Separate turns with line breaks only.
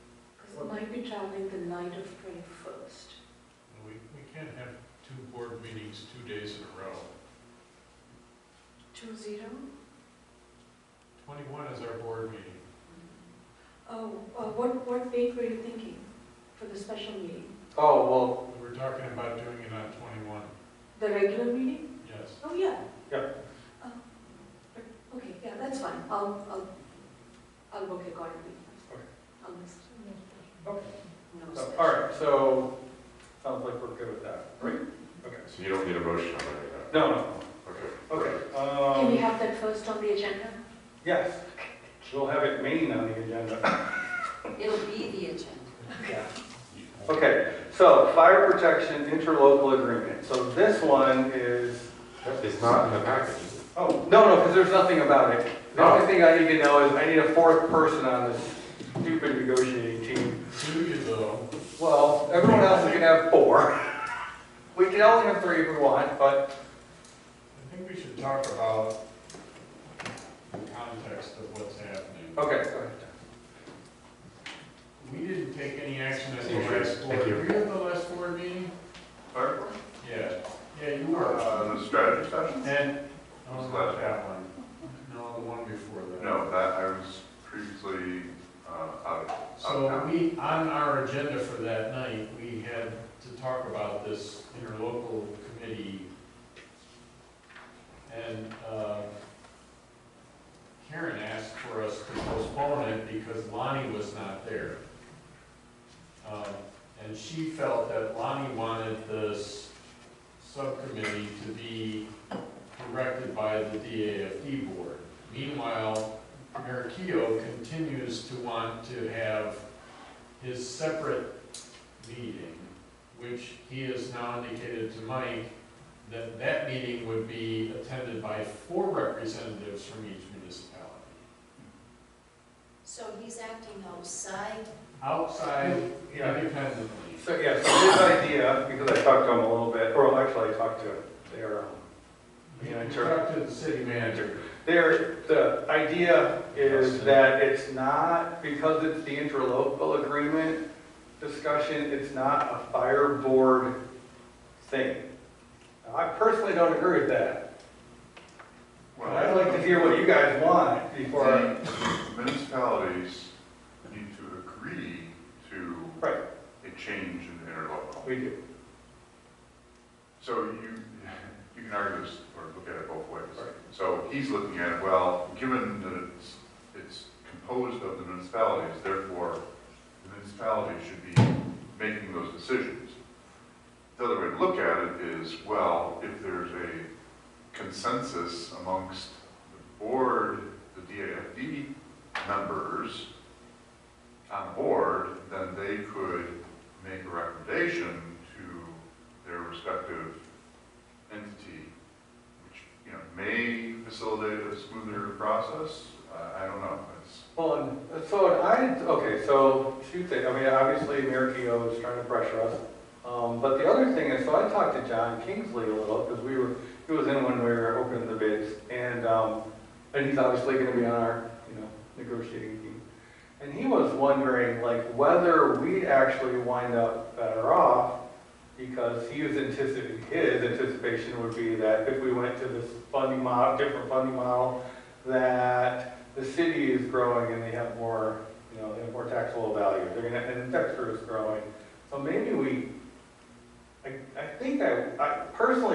might be traveling the night of 21st.
We, we can't have two board meetings two days in a row.
Two zero?
Twenty-one is our board meeting.
Oh, uh, what, what date were you thinking for the special meeting?
Oh, well,
We were talking about doing it on twenty-one,
The regular meeting?
yes.
Oh, yeah.
Yeah.
Oh, but- Okay, yeah, that's fine. I'll, I'll, I'll book accordingly.
Okay.
I'll miss.
okay.
No.
So,
special.
all right, so, sounds like we're good with that, right? Okay.
So you don't need a motion on any of that?
No, no,
Okay.
okay,
Can we
um,
have that first on the agenda?
yes, we'll have it main on the agenda.
It'll be the agenda.
Yeah. Okay, so fire protection interlocal agreement, so this one is,
It's not in the package, is it?
oh, no, no, because there's nothing about it. The only thing I need to know is I need a fourth person on this stupid negotiating team.
Do you though?
Well, everyone else is gonna have four. We can only have three if we want, but,
I think we should talk about the context of what's happening.
okay, go ahead.
We didn't take any action at the
Thank you.
last board.
Thank you.
Were you at the last board meeting?
Or,
Yeah, yeah, you were.
uh, the strategy session?
And,
It was last
that one. No, the one before that.
No, that, I was previously, uh, out.
So we, on our agenda for that night, we had to talk about this interlocal committee. And uh, Karen asked for us to postpone it because Lonnie was not there. Um, And she felt that Lonnie wanted this subcommittee to be directed by the DAFD board. Meanwhile, Mayor Keough continues to want to have his separate meeting, which he has now indicated to Mike that that meeting would be attended by four representatives from each municipality.
So he's acting outside
Outside
Yeah.
independently.
So, yeah, so his idea, because I talked to him a little bit, or actually I talked to their, um,
You
Yeah, sure.
talk to the city manager.
their, the idea is that it's not, because it's the interlocal agreement discussion, it's not a fire board thing. Now, I personally don't agree with that. but
Well,
I'd like to hear what you guys want before, I-
the Municipalities need to agree to
right,
a change in the interlocal.
we do,
So you, you can argue this or look at it both ways.
Right.
So he's looking at, it. well, given that it's, it's composed of the municipalities, therefore the municipalities should be making those decisions. The other way to look at it is, well, if there's a consensus amongst the board, the DAFD members on board, then they could make a recommendation to their respective entity, which, you know, may facilitate a smoother process. Uh, I don't know. It's,
Well, and so I, okay, so two things, I mean, obviously Mayor Keough is trying to pressure us. Um, but the other thing is, so I talked to John Kingsley a little, because we were, he was in when we were opening the bids. And, um, and he's obviously gonna be on our, you know, negotiating team. And he was wondering, like, whether we'd actually wind up better off, because he was anticipating, his anticipation would be that if we went to this funding model, different funding model, that the city is growing and they have more, you know, they have more taxable value, they're gonna, and Dexter is growing. So maybe we, I, I think I, I personally